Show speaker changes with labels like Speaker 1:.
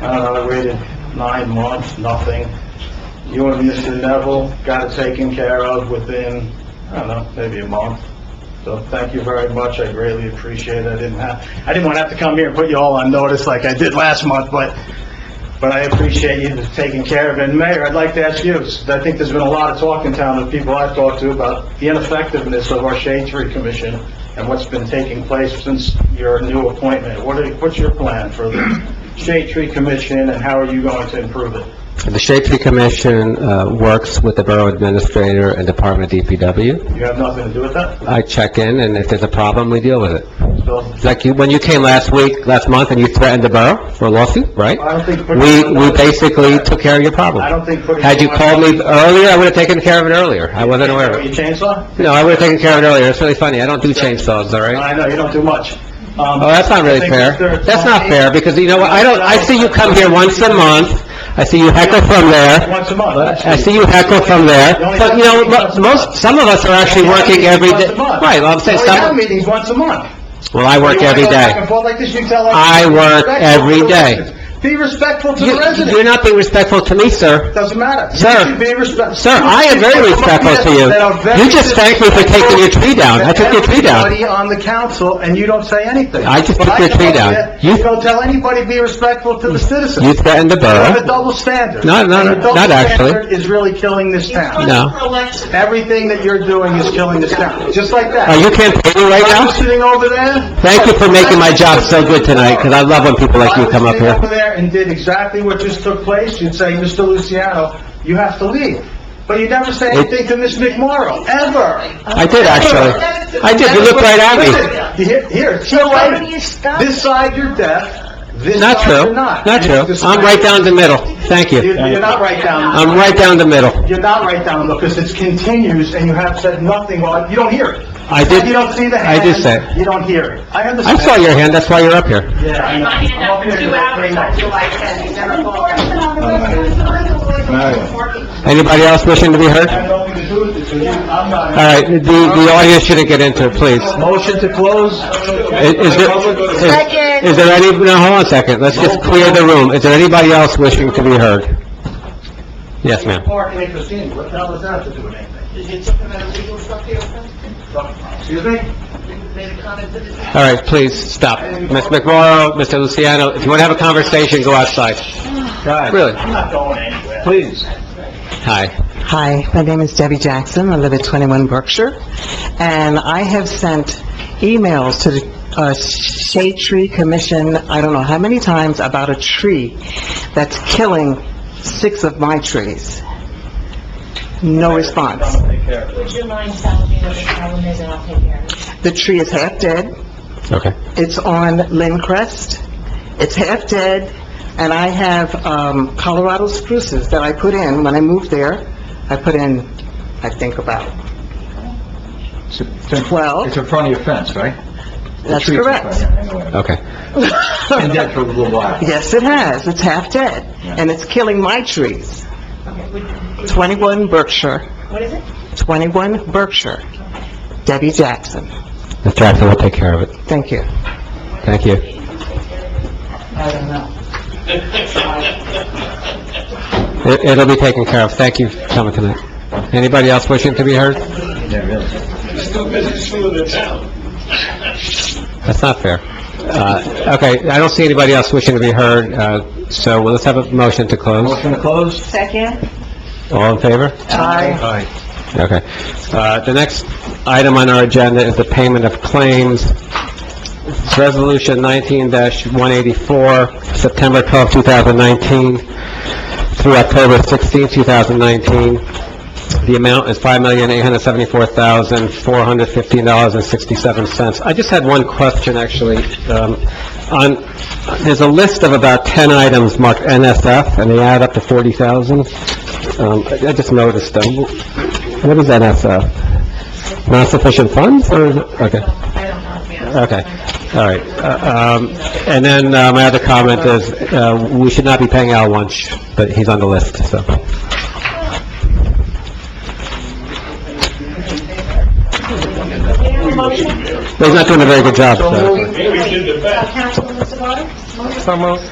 Speaker 1: Uh, I waited nine months, nothing. You and Mr. Neville got it taken care of within, I don't know, maybe a month. So thank you very much, I greatly appreciate it. I didn't have, I didn't want to have to come here and put you all on notice like I did last month, but, but I appreciate you taking care of it. And Mayor, I'd like to ask you, I think there's been a lot of talk in town of people I've talked to about the ineffectiveness of our Shade Tree Commission and what's been taking place since your new appointment. What are, what's your plan for the Shade Tree Commission and how are you going to improve it?
Speaker 2: The Shade Tree Commission uh, works with the Borough Administrator and Department of DPW.
Speaker 1: You have nothing to do with that?
Speaker 2: I check in, and if there's a problem, we deal with it.
Speaker 1: So,
Speaker 2: Like you, when you came last week, last month, and you threatened the borough for a lawsuit, right?
Speaker 1: I don't think...
Speaker 2: We, we basically took care of your
Speaker 1: I
Speaker 2: problem.
Speaker 1: don't think putting...
Speaker 2: Had you called me earlier, I would have taken care of it earlier. I wasn't aware of it.
Speaker 1: Your chainsaw?
Speaker 2: No, I would have taken care of it earlier. It's really funny. I don't do chainsaws, all right?
Speaker 1: I know, you don't do much. Um,
Speaker 2: Oh, that's not really fair. That's not fair, because you know what? I don't, I see you come here once a month. I see you heckle from there.
Speaker 1: Once a month, that's...
Speaker 2: I see you heckle from there, but you know, mo- most, some of us are actually working every day. Right, well, I'm saying
Speaker 1: We have
Speaker 2: some,
Speaker 1: meetings once a month.
Speaker 2: well, I work every
Speaker 1: You wanna go back
Speaker 2: day.
Speaker 1: and forth like this, you tell us-
Speaker 2: I work every day.
Speaker 1: Be respectful to the
Speaker 2: You-
Speaker 1: residents.
Speaker 2: You're not being respectful to me, sir.
Speaker 1: Doesn't matter. You
Speaker 2: Sir.
Speaker 1: should be respect-
Speaker 2: Sir, I am very respectful to you.
Speaker 1: That are very
Speaker 2: You just thanked me for taking your tree down. I took your tree down.
Speaker 1: Everybody on the council, and you don't say anything.
Speaker 2: I just
Speaker 1: When
Speaker 2: took your
Speaker 1: come
Speaker 2: tree
Speaker 1: up
Speaker 2: down.
Speaker 1: here,
Speaker 2: You-
Speaker 1: You don't tell anybody, be respectful to the citizens.
Speaker 2: You threatened the
Speaker 1: You have a
Speaker 2: borough.
Speaker 1: double standard.
Speaker 2: No, no,
Speaker 1: And your
Speaker 2: no,
Speaker 1: double
Speaker 2: not actually.
Speaker 1: standard is really killing this town.
Speaker 2: No.
Speaker 1: Everything that you're doing is killing this town, just like that.
Speaker 2: Are you campaigning right
Speaker 1: I'm
Speaker 2: now?
Speaker 1: sitting over there.
Speaker 2: Thank you for making my job so good tonight, because I love when people like you come up
Speaker 1: If I was sitting
Speaker 2: here.
Speaker 1: over there and did exactly what just took place, you'd say, "Mr. Luciano, you have to leave." But you never say anything to Ms. McMorro, ever.
Speaker 2: I did, actually. I did, you looked right
Speaker 1: Listen,
Speaker 2: at
Speaker 1: you
Speaker 2: me.
Speaker 1: hear- Here, it's your way. This side you're deaf, this
Speaker 2: Not
Speaker 1: side
Speaker 2: true,
Speaker 1: you're not.
Speaker 2: not
Speaker 1: You're
Speaker 2: true.
Speaker 1: just-
Speaker 2: I'm right down the middle. Thank
Speaker 1: You're
Speaker 2: you.
Speaker 1: you're not right down,
Speaker 2: I'm right down the middle.
Speaker 1: you're not right down, because it continues and you have said nothing, well, you don't hear it.
Speaker 2: I did-
Speaker 1: You don't see the
Speaker 2: I
Speaker 1: hand.
Speaker 2: did say it.
Speaker 1: You don't hear it. I
Speaker 2: I
Speaker 1: understand.
Speaker 2: saw your hand, that's why you're up here.
Speaker 1: Yeah, I know.
Speaker 3: My hand up for two hours on July 10th, you never called.
Speaker 2: Anybody else wishing to be heard?
Speaker 1: I have nothing to do with it, so you- I'm not- Uh,
Speaker 2: All right, the, the audience shouldn't get into it, please.
Speaker 1: Motion to close?
Speaker 2: Is is there, is- is there any, no, hold on a second, let's just clear the room. Is there anybody else wishing to be heard? Yes, ma'am.
Speaker 1: Parking in Christine, what the hell does that have to do with anything? Excuse me?
Speaker 2: All right, please, stop. Ms. McMorro, Mr. Luciano, if you want to have a conversation, go outside. Really?
Speaker 1: I'm not going anywhere.
Speaker 2: Please. Hi.
Speaker 4: Hi, my name is Debbie Jackson. I live at 21 Berkshire, and I have sent emails to the uh, Shade Tree Commission, I don't know how many times, about a tree that's killing six of my trees. No response.
Speaker 5: Would you mind telling me what the problem is, and I'll take care of it?
Speaker 4: The tree is half dead.
Speaker 2: Okay.
Speaker 4: It's on Lynn Crest. It's half dead, and I have um, Colorado spruces that I put in when I moved there. I put in, I think about 12.
Speaker 6: in front of your fence, right?
Speaker 4: That's correct.
Speaker 2: Okay.
Speaker 6: And that for a little while.
Speaker 4: Yes, it has. It's half dead, and it's killing my trees.
Speaker 5: Okay, would- would-
Speaker 4: 21 Berkshire,
Speaker 5: What is it?
Speaker 4: 21 Berkshire. Debbie Jackson.
Speaker 2: Mr. Jackson, we'll take care of it.
Speaker 4: Thank you.
Speaker 2: Thank you.
Speaker 4: I don't know.
Speaker 2: It- It'll be taken care of. Thank you for coming tonight. Anybody else wishing to be heard?
Speaker 6: Yeah, really.
Speaker 2: That's not fair. Uh, okay, I don't see anybody else wishing to be heard, uh, so well, let's have a motion to close.
Speaker 6: Motion to close?
Speaker 5: Second.
Speaker 2: All in favor?
Speaker 4: Aye.
Speaker 2: Okay. Uh, the next item on our agenda is the payment of claims. Resolution nineteen one eighty-four, September twelfth, two thousand nineteen, through October sixteenth, two thousand nineteen. The amount is five million, eight hundred seventy-four thousand, four hundred fifteen dollars and sixty-seven cents. I just had one question, actually. Um, on, there's a list of about ten items marked NSF, and they add up to forty thousand. Um, I I just noticed them. What is NSF? Not sufficient funds, or is it, okay,
Speaker 5: I don't know. yeah.
Speaker 2: okay, all right. Uh, Um, and then, uh, my other comment is, uh, we should not be paying Al lunch, but he's on the list, so.
Speaker 5: May I have a motion?
Speaker 2: But He's not doing a very good job, so.
Speaker 5: Uh, Councilman Sabata?